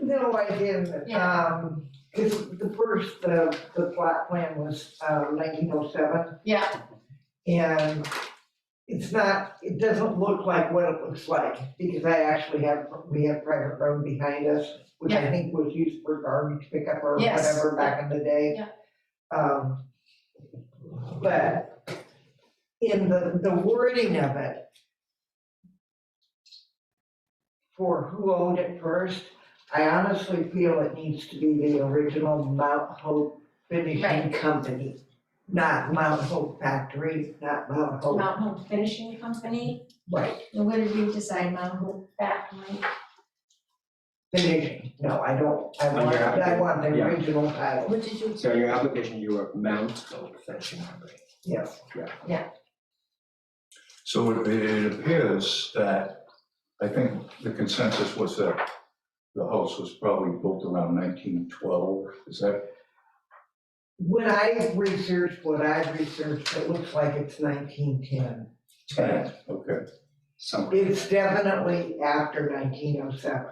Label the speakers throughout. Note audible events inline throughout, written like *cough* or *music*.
Speaker 1: No, I didn't,
Speaker 2: Yeah.
Speaker 1: um, cause the first, the, the plot plan was, uh, nineteen oh seven,
Speaker 2: Yeah,
Speaker 1: and it's not, it doesn't look like what it looks like, because I actually have, we have private road behind us, which I
Speaker 2: Yeah.
Speaker 1: think was used for garbage pickup or
Speaker 2: Yes.
Speaker 1: whatever back in the day.
Speaker 2: Yeah.
Speaker 1: Um, but in the, the wording of it, for who owned it first, I honestly feel it needs to be the original Mount Hope Finishing
Speaker 2: Right.
Speaker 1: Company. Not Mount Hope Factory, not Mount Hope,
Speaker 2: Mount Hope Finishing Company,
Speaker 1: right,
Speaker 2: and what did we decide, Mount Hope Factory?
Speaker 1: finishing, no, I don't, I
Speaker 3: On
Speaker 1: want,
Speaker 3: your
Speaker 1: I
Speaker 3: application,
Speaker 1: want the
Speaker 3: yeah.
Speaker 1: original title,
Speaker 2: What did you,
Speaker 3: So in your application, you were Mount Hope Finishing Company.
Speaker 1: yes.
Speaker 4: So it, it appears that, I think the consensus was that the house was probably built around nineteen twelve, is that?
Speaker 1: When I researched what I researched, it looks like it's nineteen ten.
Speaker 4: correct? Okay,
Speaker 3: Somewhere.
Speaker 1: It's definitely after nineteen oh seven,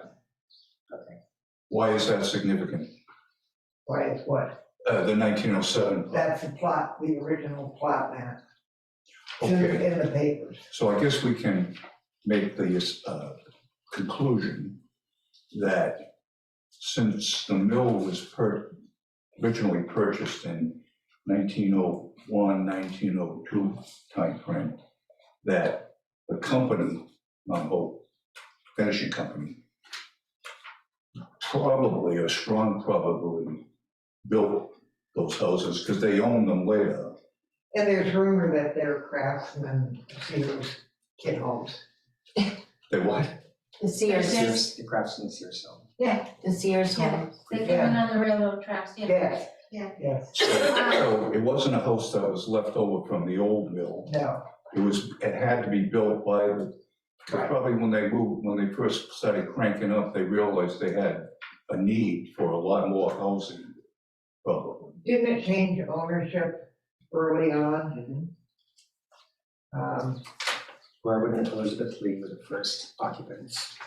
Speaker 4: why is that significant?
Speaker 1: why it's what,
Speaker 4: Uh, the nineteen oh seven,
Speaker 1: that's the plot, the original plot map. It's in-
Speaker 4: okay,
Speaker 1: In the papers,
Speaker 4: so I guess we can make the, uh, conclusion that since the mill was per, originally purchased in 1901, 1902 timeframe, that the company, Mount Hope Finishing Company, probably a strong probability built those houses because they owned them later.
Speaker 1: and there's rumor that they're craftsmen, Sears, kid homes.
Speaker 4: They what?
Speaker 5: The Sears,
Speaker 3: Sears, the Craftsman Sears home.
Speaker 5: the Sears
Speaker 2: Yeah.
Speaker 5: home.
Speaker 2: they went on the railroad tracks, yeah.
Speaker 1: Yes,
Speaker 2: Yeah.
Speaker 1: yes,
Speaker 4: So- So it wasn't a house that was left over from the old mill.
Speaker 1: no,
Speaker 4: It was, it had to be built by the,
Speaker 3: Right.
Speaker 4: probably when they moved, when they first started cranking up, they realized they had a need for a lot more housing, probably.
Speaker 1: didn't it change ownership early on? Um,
Speaker 3: Robert and Elizabeth Lee were the first occupants.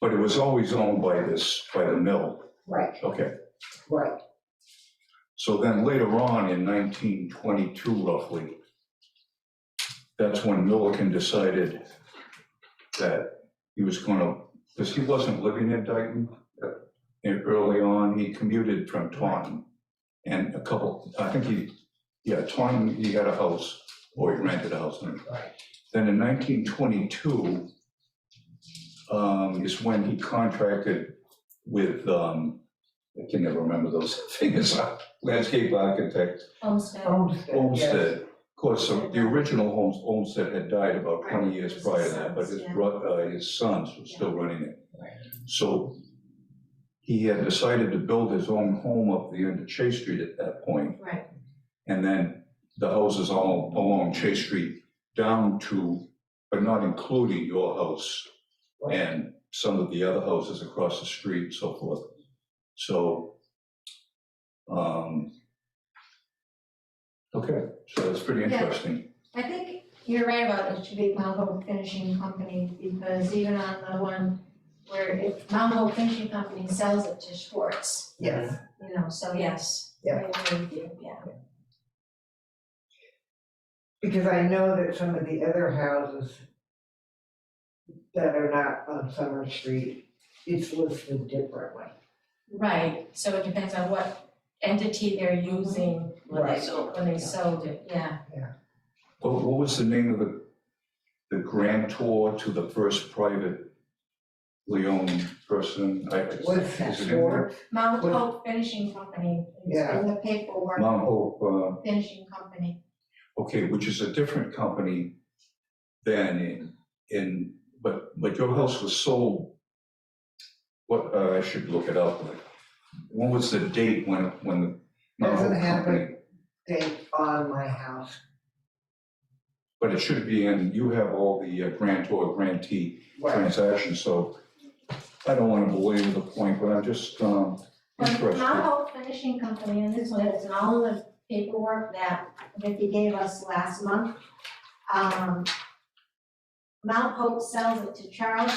Speaker 4: But it was always owned by this, by the mill.
Speaker 1: right,
Speaker 4: Okay,
Speaker 1: right,
Speaker 4: so then later on in nineteen twenty-two roughly, that's when Milliken decided that he was gonna, because he wasn't living in Dayton. uh, And early on, he commuted from Taunton. And a couple, I think he, yeah, Taunton, he had a house, or he rented a house. and-
Speaker 1: Right.
Speaker 4: Then in nineteen twenty-two um, is when he contracted with, um, I can never remember those *laughs* figures, landscape architect,
Speaker 2: Homestead,
Speaker 1: homestead, yes.
Speaker 4: Olmsted. Of course, the the original Holmes, Olmsted had died about
Speaker 2: Right,
Speaker 4: twenty years
Speaker 2: it was
Speaker 4: prior
Speaker 2: his
Speaker 4: to that, but
Speaker 2: sons,
Speaker 4: his
Speaker 2: yeah.
Speaker 4: bro, uh, his sons were still running it.
Speaker 3: Right.
Speaker 4: So he had decided to build his own home up the end of Chase Street at that point.
Speaker 2: Right.
Speaker 4: And then the houses all along Chase Street down to, but not including your house
Speaker 1: Right.
Speaker 4: and some of the other houses across the street and so forth. So, um, okay, so that's pretty
Speaker 2: Yeah.
Speaker 4: interesting.
Speaker 2: I think you're right about it should be Mount Hope Finishing Company, because even on the one where if Mount Hope Finishing Company sells it to Schwartz,
Speaker 1: Yes.
Speaker 2: you know, so yes.
Speaker 1: Yeah.
Speaker 2: I agree with you, yeah.
Speaker 1: Because I know that some of the other houses that are not on Summer Street, it's listed differently.
Speaker 2: Right, so it depends on what entity they're using when they sold, when they sold it, yeah.
Speaker 4: What, what was the name of the, the grantor to the first private owned person? I- I-
Speaker 1: Was that
Speaker 4: is it in there?
Speaker 1: short?
Speaker 2: Mount
Speaker 1: What-
Speaker 2: Hope Finishing Company, it's
Speaker 1: Yeah.
Speaker 2: in the paperwork,
Speaker 4: Mount Hope,
Speaker 2: finishing company.
Speaker 4: uh, okay, which is a different company than in, in, but, but your house was sold. What, uh, I should look it up. When was the date when, when the Mount
Speaker 1: Doesn't
Speaker 4: Hope
Speaker 1: have
Speaker 4: company?
Speaker 1: Date on my house,
Speaker 4: But it should be in, you have all the uh, grantor, grantee
Speaker 1: right,
Speaker 4: transaction, so I don't want to belabor the point, but I'm just um,
Speaker 2: But Mount
Speaker 4: interested.
Speaker 2: Hope Finishing Company, and this one, it's in all of the paperwork that Vicki gave us last month. Um, Mount Hope sells it to Charles